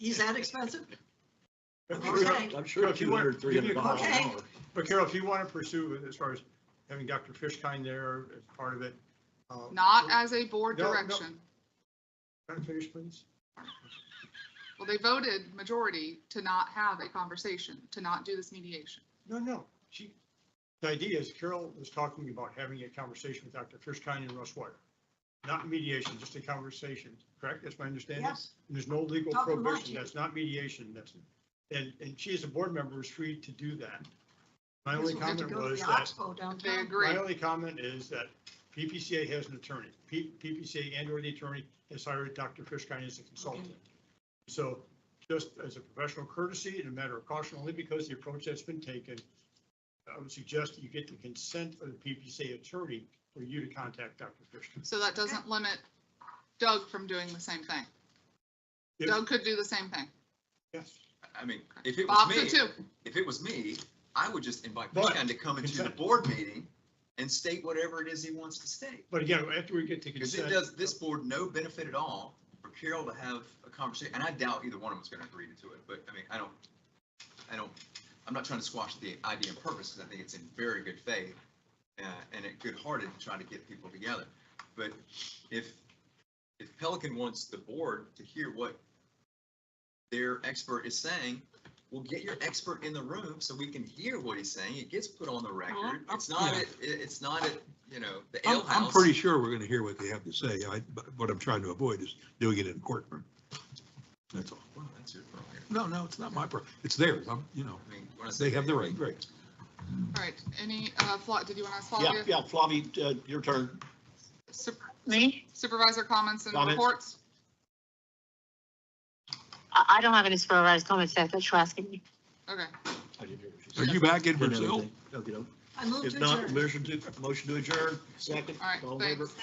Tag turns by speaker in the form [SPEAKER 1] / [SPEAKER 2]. [SPEAKER 1] Is that expensive?
[SPEAKER 2] But
[SPEAKER 1] Okay.
[SPEAKER 2] Carol-
[SPEAKER 3] I'm sure
[SPEAKER 2] If you
[SPEAKER 3] two
[SPEAKER 2] want-
[SPEAKER 3] hundred, three
[SPEAKER 2] give
[SPEAKER 3] hundred
[SPEAKER 2] me a call
[SPEAKER 3] dollars an
[SPEAKER 1] Okay.
[SPEAKER 3] hour.
[SPEAKER 2] But Carol, if you want to pursue it as far as having Dr. Fishkind there as part of it. uh,
[SPEAKER 4] Not as a board
[SPEAKER 2] No, no.
[SPEAKER 4] direction.
[SPEAKER 2] Can I finish, please?
[SPEAKER 4] Well, they voted majority to not have a conversation, to not do this mediation.
[SPEAKER 2] No, no, she, the idea is Carol was talking about having a conversation with Dr. Fishkind and Russ Wire. Not mediation, just a conversation, correct? That's my understanding?
[SPEAKER 1] Yes,
[SPEAKER 2] And There's no legal
[SPEAKER 1] Talking about
[SPEAKER 2] prohibition.
[SPEAKER 1] you.
[SPEAKER 2] That's not mediation. That's, and, and she as a board member is free to do that. My
[SPEAKER 1] because
[SPEAKER 2] only
[SPEAKER 1] we have to
[SPEAKER 2] comment
[SPEAKER 1] go to
[SPEAKER 2] was
[SPEAKER 1] the
[SPEAKER 2] that
[SPEAKER 1] Oxbow
[SPEAKER 4] They
[SPEAKER 1] downtown.
[SPEAKER 4] agree.
[SPEAKER 2] My only comment is that PPCA has an attorney. P- PPCA and or the attorney has hired Dr. Fishkind as a consultant. So just as a professional courtesy and a matter of caution, only because the approach that's been taken, I would suggest you get the consent of the PPCA attorney for you to contact Dr. Fishkind.
[SPEAKER 4] So that doesn't limit Doug from doing the same thing.
[SPEAKER 2] Yes.
[SPEAKER 4] Doug could do the same thing.
[SPEAKER 2] Yes.
[SPEAKER 5] I mean, if it was
[SPEAKER 4] Bob could
[SPEAKER 5] me,
[SPEAKER 4] too.
[SPEAKER 5] if it was me, I would just invite
[SPEAKER 2] But-
[SPEAKER 5] Fishkind to come into the
[SPEAKER 2] Exactly.
[SPEAKER 5] board meeting and state whatever it is he wants to state.
[SPEAKER 2] But again, after we get to
[SPEAKER 5] Because it
[SPEAKER 2] consent.
[SPEAKER 5] does this board no benefit at all for Carol to have a conversation, and I doubt either one of them's gonna agree to it, but I mean, I don't, I don't, I'm not trying to squash the idea and purpose, because I think it's in very good faith, uh, and it good-hearted to try to get people together. But if, if Pelican wants the board to hear what their expert is saying, well, get your expert in the room so we can hear what he's saying. It gets put on the record.
[SPEAKER 1] I'm-
[SPEAKER 5] It's not,
[SPEAKER 3] yeah.
[SPEAKER 5] at- it, it's not, at you know, the
[SPEAKER 3] I'm,
[SPEAKER 5] alehouse.
[SPEAKER 3] I'm pretty sure we're gonna hear what they have to say. I, but what I'm trying to avoid is doing it in courtroom. That's all.
[SPEAKER 5] Well, that's your prerogative.
[SPEAKER 3] No, no, it's not my problem. It's theirs. I'm, you know,
[SPEAKER 5] I mean, when I say
[SPEAKER 3] they have the
[SPEAKER 5] I
[SPEAKER 3] right,
[SPEAKER 5] mean,
[SPEAKER 3] right.
[SPEAKER 4] All right, any, uh, Fla- did you want to ask
[SPEAKER 6] Yeah,
[SPEAKER 4] Flavia?
[SPEAKER 6] yeah, Flavi, uh, your turn.
[SPEAKER 4] Sup-
[SPEAKER 7] Me?
[SPEAKER 4] Supervisor comments and
[SPEAKER 6] Comments?
[SPEAKER 4] reports?
[SPEAKER 7] I, I don't have any supervised comments, that's what you're asking me.
[SPEAKER 4] Okay,
[SPEAKER 3] Are you back in
[SPEAKER 6] Didn't
[SPEAKER 3] Brazil?
[SPEAKER 6] everything. Okey-doke.
[SPEAKER 1] I moved
[SPEAKER 6] If
[SPEAKER 1] to
[SPEAKER 6] not,
[SPEAKER 1] adjourn.
[SPEAKER 6] motion to, motion to adjourn, second.
[SPEAKER 4] all right,
[SPEAKER 6] all in favor?
[SPEAKER 4] thanks.